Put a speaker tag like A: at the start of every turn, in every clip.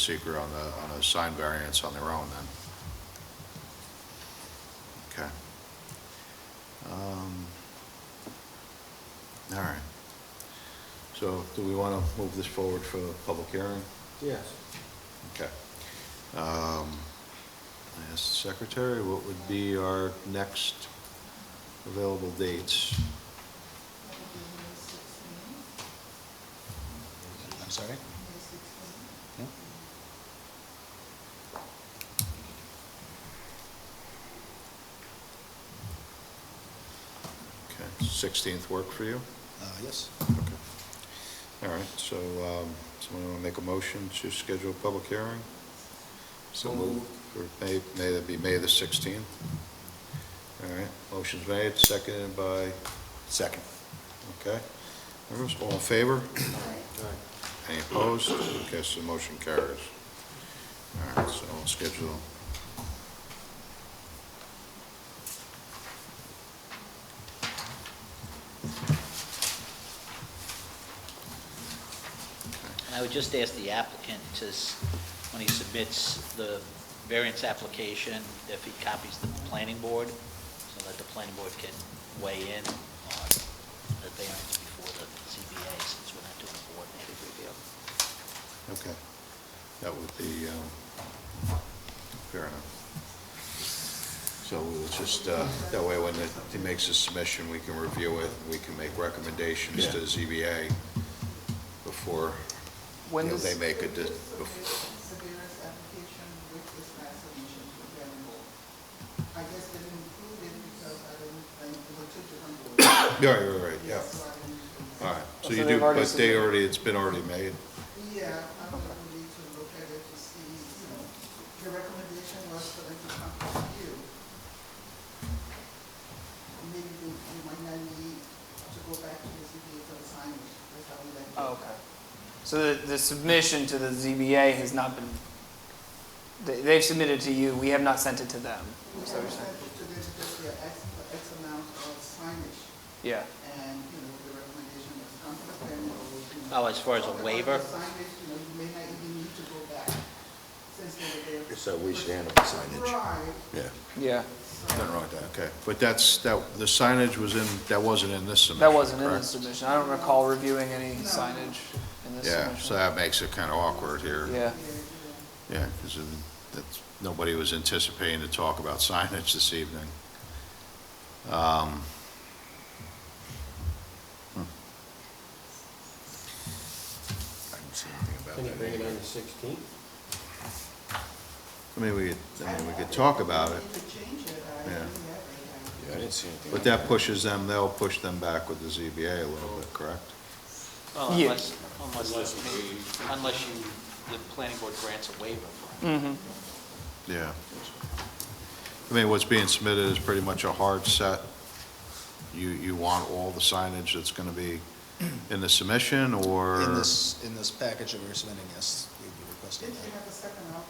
A: seeker on the, on a sign variance on their own then. Okay. Um, All right. So do we want to move this forward for a public hearing?
B: Yes.
A: Okay. Um, I asked the secretary, what would be our next available dates?
C: I'm sorry? Yeah.
A: Okay, 16th work for you?
C: Uh, Yes.
A: Okay. All right, so um, someone want to make a motion to schedule a public hearing? So moved. For May, May, that'd be May the 16th. All right, motion's made, seconded by,
C: Second.
A: okay. Members, all in favor? Any opposed? Okay, so the motion carries. All right, so we'll schedule.
D: And I would just ask the applicant to, s- when he submits the variance application, if he copies the planning board, so that the planning board can weigh in on the variance before the ZBA, since we're not doing a coordinated review.
A: Okay. That would be, um, fair enough. So we'll just, uh, that way when it- he makes his submission, we can review it, we can make recommendations to the ZBA before, you
E: When
A: know,
E: does,
A: they make a, de- bef-
E: Severance application with this last submission to the planning board. I guess they didn't include it because I didn't, I was two different boards.
A: yeah, you're right, yeah.
E: So I didn't include it.
A: All right, so
C: So
A: you do,
C: they've already
A: but they
C: submitted.
A: already, it's been already made?
E: Yeah, I'm gonna need to look at it to see, you know, the recommendation was for them to contact you. Maybe they, they might not need to go back to the ZBA for the signage, that's how we like.
F: Oh, okay. So the, the submission to the ZBA has not been, they, they've submitted to you, we have not sent it to them.
E: We
F: So you're
E: have
F: saying-
E: sent it to them because they are asked for X amount of signage.
F: Yeah,
E: And, you know, the recommendation was conference planning or, you know.
D: Oh, as far as a
E: or the
D: waiver?
E: Signage, you know, you may not even need to go back since they were there.
B: So we should handle the signage.
E: Right,
B: Yeah,
F: yeah.
E: so,
B: nothing wrong with that.
A: Okay, but that's, that, the signage was in, that wasn't in this submission,
F: That wasn't in the
A: correct?
F: submission. I don't recall reviewing any
E: No.
F: signage in this
A: Yeah, so
F: submission.
A: that makes it kind of awkward here.
F: Yeah,
E: yeah, yeah.
A: Yeah, because that's, nobody was anticipating to talk about signage this evening. Um, hmm.
B: I didn't see anything about
G: Can you
B: that.
G: bring it on the sixteenth?
A: I mean, we, could- I mean, we could talk about it,
E: I could change it, I
A: Yeah.
E: didn't have it, I-
B: Yeah, I didn't see anything.
A: but that pushes them, they'll push them back with the ZBA a little bit, correct?
D: Well,
F: Yeah.
D: unless, unless, I mean, unless you, the planning board grants a waiver for it.
F: mm-hmm,
A: Yeah. I mean, what's being submitted is pretty much a hard set. You, you want all the signage that's going to be in the submission, or?
C: In this, in this package that we're submitting, yes, we'd be requesting
E: If you
C: that.
E: have a second, I'll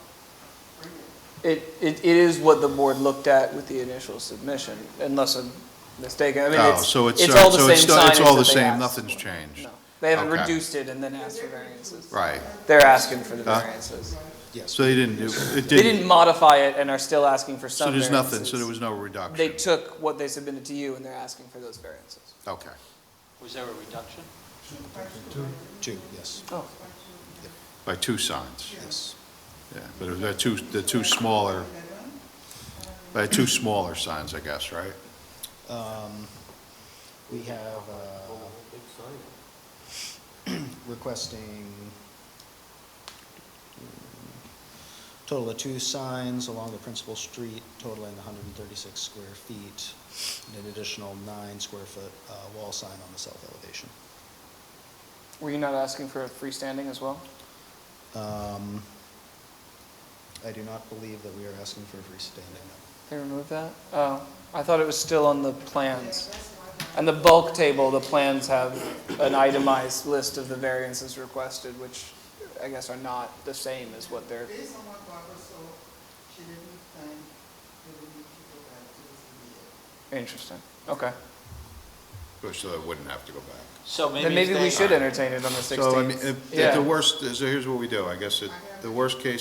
E: bring it.
F: It, it, it is what the board looked at with the initial submission, unless I'm mistaken. I mean,
A: Oh,
F: it's,
A: so it's,
F: it's
A: uh,
F: all the
A: so
F: same
A: it's still-
F: signage
A: it's all
F: that
A: the
F: they
A: same,
F: asked
A: nothing's
F: for.
A: changed.
F: No. They haven't
A: Okay.
F: reduced it and then asked for variances.
A: Right.
F: They're asking for the
A: Huh?
F: variances.
C: Yes.
A: So they didn't, it- it didn't.
F: They didn't modify it and are still asking for
A: So
F: some
A: there's
F: variances.
A: nothing, so there was no reduction?
F: They took what they submitted to you and they're asking for those variances.
A: Okay.
D: Was there a reduction?
C: Two, yes,
F: Oh.
A: By two signs,
C: yes.
A: yeah, but it was the two, the two smaller, by two smaller signs, I guess, right?
C: Um, We have uh,
G: Big sign.
C: requesting total of two signs along the principal street totaling 136 square feet, and an additional nine square foot uh, wall sign on the south elevation.
F: Were you not asking for a freestanding as well?
C: Um, I do not believe that we are asking for a freestanding.
F: They removed that? Oh, I thought it was still on the plans. And the bulk table, the plans have an itemized list of the variances requested, which I guess are not the same as what they're,
E: Based on what Barbara saw, she didn't think they would need to go back to the ZBA.
F: interesting. Okay.
A: so that wouldn't have to go back.
D: So maybe.
F: Then
D: if
F: maybe we
D: they-
F: should entertain it on the 16th.
A: So, I mean, if-
F: Yeah.
A: if the worst, so here's what we do, I guess, it- the worst case